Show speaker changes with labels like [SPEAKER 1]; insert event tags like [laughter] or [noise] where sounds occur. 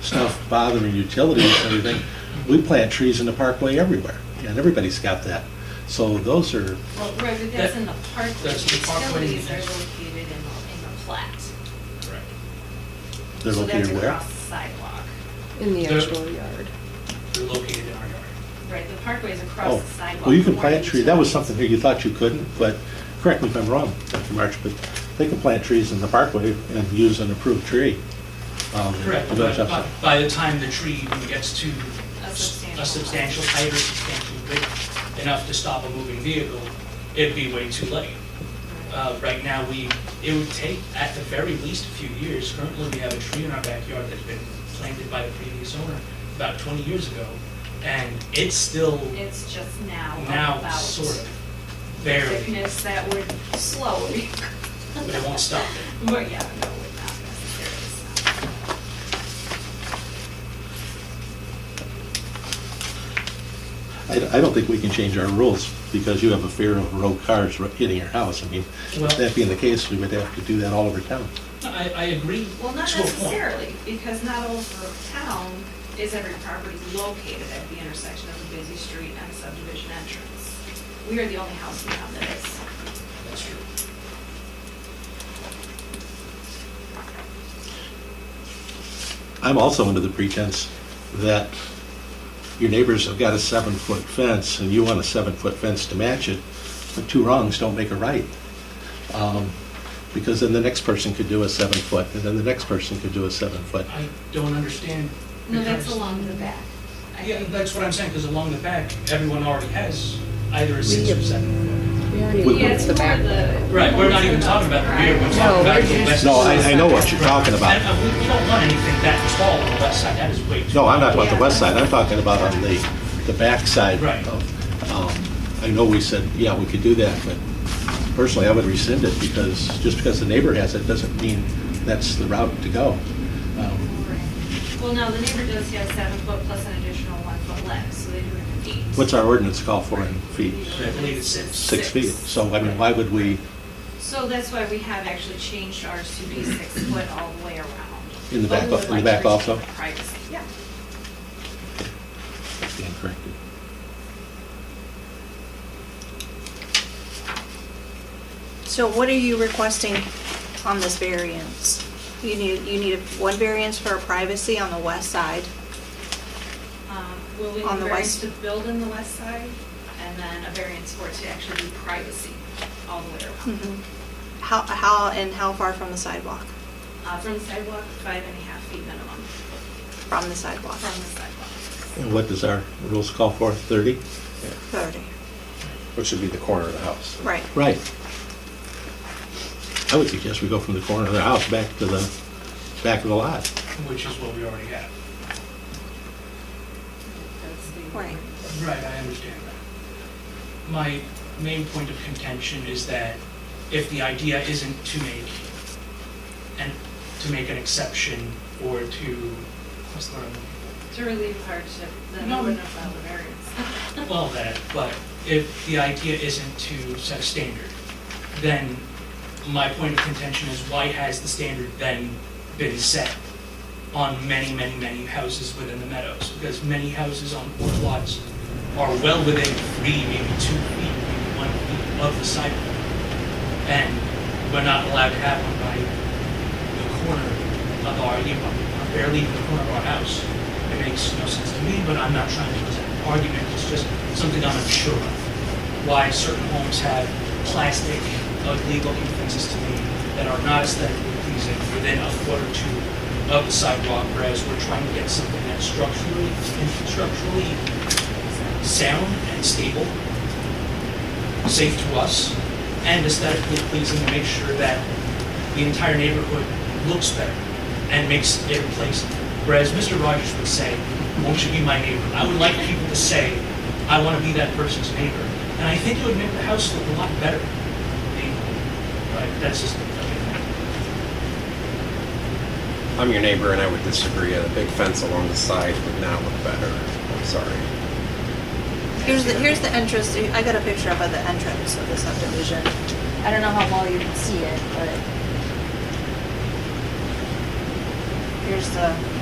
[SPEAKER 1] stuff bothering utilities and everything, we plant trees in the parkway everywhere, and everybody's got that. So those are,
[SPEAKER 2] Well, right, but that's in the park, the
[SPEAKER 3] That's in the park, what do you
[SPEAKER 2] utilities are
[SPEAKER 3] mean?
[SPEAKER 2] located in, the- in the plat.
[SPEAKER 3] Correct.
[SPEAKER 1] they're
[SPEAKER 2] So that's
[SPEAKER 1] located where?
[SPEAKER 2] across the sidewalk,
[SPEAKER 4] in the
[SPEAKER 3] There-
[SPEAKER 4] actual yard.
[SPEAKER 3] They're located in our yard.
[SPEAKER 2] right, the parkway's across
[SPEAKER 1] Oh,
[SPEAKER 2] the sidewalk.
[SPEAKER 1] well, you can
[SPEAKER 2] more
[SPEAKER 1] plant
[SPEAKER 2] than
[SPEAKER 1] trees, that was
[SPEAKER 2] utilities.
[SPEAKER 1] something here you thought you couldn't, but, correct me if I'm wrong, Dr. March, but they can plant trees in the parkway and use an approved tree. um,
[SPEAKER 3] Correct,
[SPEAKER 1] the
[SPEAKER 3] but
[SPEAKER 1] village
[SPEAKER 3] by-
[SPEAKER 1] upside.
[SPEAKER 3] by the time the tree even gets to
[SPEAKER 2] A
[SPEAKER 3] s-
[SPEAKER 2] substantial
[SPEAKER 3] a
[SPEAKER 2] height.
[SPEAKER 3] substantial height or substantial width, enough to stop a moving vehicle, it'd be way too late. Uh, Right now, we, it would take at the very least a few years. Currently, we have a tree in our backyard that's been planted by the previous owner about 20 years ago, and it's still
[SPEAKER 2] It's just now
[SPEAKER 3] now
[SPEAKER 2] about
[SPEAKER 3] sort of barely,
[SPEAKER 2] thickness that would slow it, [laughs]
[SPEAKER 3] but it won't stop it.
[SPEAKER 2] but yeah, no, it would not necessarily stop.
[SPEAKER 1] I, I don't think we can change our rules because you have a fear of road cars ru- hitting your house. I mean,
[SPEAKER 3] Well-
[SPEAKER 1] that being the case, we would have to do that all over town.
[SPEAKER 3] I, I agree to a
[SPEAKER 2] Well,
[SPEAKER 3] point.
[SPEAKER 2] not necessarily, because not all over town is every property located at the intersection of a busy street and a subdivision entrance. We are the only house in town that is.
[SPEAKER 3] That's true.
[SPEAKER 1] I'm also under the pretense that your neighbors have got a seven-foot fence and you want a seven-foot fence to match it, but two wrongs don't make a right. Um, Because then the next person could do a seven-foot, and then the next person could do a seven-foot.
[SPEAKER 3] I don't understand.
[SPEAKER 2] No, that's
[SPEAKER 3] because-
[SPEAKER 2] along the back. I
[SPEAKER 3] Yeah,
[SPEAKER 2] think.
[SPEAKER 3] that's what I'm saying, because along the back, everyone already has either a six or seven.
[SPEAKER 4] We already
[SPEAKER 1] Would-
[SPEAKER 2] Yeah,
[SPEAKER 4] went
[SPEAKER 2] it's
[SPEAKER 4] to
[SPEAKER 2] more
[SPEAKER 4] the back.
[SPEAKER 2] the.
[SPEAKER 3] Right, we're not even talking about the rear, we're talking
[SPEAKER 4] No,
[SPEAKER 3] about
[SPEAKER 4] we're
[SPEAKER 3] the
[SPEAKER 4] just-
[SPEAKER 3] west.
[SPEAKER 1] No, I, I know what you're talking
[SPEAKER 3] And,
[SPEAKER 1] about.
[SPEAKER 3] uh, we, we don't want anything that tall on the west side, that is way too.
[SPEAKER 1] No, I'm not
[SPEAKER 3] tall.
[SPEAKER 1] about the west side, I'm talking about on the, the backside.
[SPEAKER 3] Right.
[SPEAKER 1] of, um, I know we said, yeah, we could do that, but personally, I would rescind it because, just because the neighbor has it doesn't mean that's the route to go. Um,
[SPEAKER 2] Well, no, the neighbor does have seven foot plus an additional one foot left, so they do have eight.
[SPEAKER 1] What's our ordinance call for in feet?
[SPEAKER 3] I believe it's six.
[SPEAKER 1] Six feet. So, I mean, why would we,
[SPEAKER 2] So that's why we have actually changed ours to be six foot all the way around.
[SPEAKER 1] In the
[SPEAKER 2] But
[SPEAKER 1] back
[SPEAKER 2] we
[SPEAKER 1] of-
[SPEAKER 2] would
[SPEAKER 1] in the
[SPEAKER 2] like
[SPEAKER 1] back
[SPEAKER 2] to
[SPEAKER 1] also?
[SPEAKER 2] retain Privacy, yeah.
[SPEAKER 1] stand corrected?
[SPEAKER 5] So what are you requesting on this variance? You need, you need one variance for privacy on the west side.
[SPEAKER 2] Um, Will we
[SPEAKER 5] On the
[SPEAKER 2] variance
[SPEAKER 5] west-
[SPEAKER 2] to build in the west side and then a variance for it to actually be privacy all the way around?
[SPEAKER 5] How, how, and how far from the sidewalk?
[SPEAKER 2] Uh, From the sidewalk, five and a half feet minimum
[SPEAKER 5] From the sidewalk,
[SPEAKER 2] from the sidewalk.
[SPEAKER 1] And what does our rules call for, 30?
[SPEAKER 5] 30,
[SPEAKER 6] Which would be the corner of the house.
[SPEAKER 5] right.
[SPEAKER 1] Right. I would suggest we go from the corner of the house back to the, back of the lot.
[SPEAKER 3] Which is what we already have.
[SPEAKER 2] That's the-
[SPEAKER 5] Right.
[SPEAKER 3] Right, I understand that. My main point of contention is that if the idea isn't to make, and to make an exception or to, what's the word? I'm looking for?
[SPEAKER 2] To relieve hardship, then I
[SPEAKER 3] No.
[SPEAKER 2] wouldn't allow the variance.
[SPEAKER 3] Well, that, but if the idea isn't to set a standard, then my point of contention is why has the standard then been set on many, many, many houses within the meadows? Because many houses on four lots are well within three, maybe two feet, maybe one feet of the sidewalk. And we're not allowed to have one by the corner of our, you know, barely even the corner of our house. It makes no sense to me, but I'm not trying to present an argument, it's just something I'm unsure of. Why certain homes have plastic, ugly-looking fences to me that are not aesthetically pleasing within a foot or two of the sidewalk, whereas we're trying to get something that's structurally, structurally sound and stable, safe to us, and aesthetically pleasing to make sure that the entire neighborhood looks better and makes it a place. Whereas Mr. Rogers would say, won't you be my neighbor? I would like people to say, I want to be that person's neighbor. And I think it would make the house look a lot better. I mean, But that's just,
[SPEAKER 6] I'm your neighbor and I would disagree. A big fence along the side would not look better. I'm sorry.
[SPEAKER 5] Here's the, here's the entrance, I got a picture of the entrance of the subdivision.
[SPEAKER 7] I don't know how well you can see it, but
[SPEAKER 5] Here's the,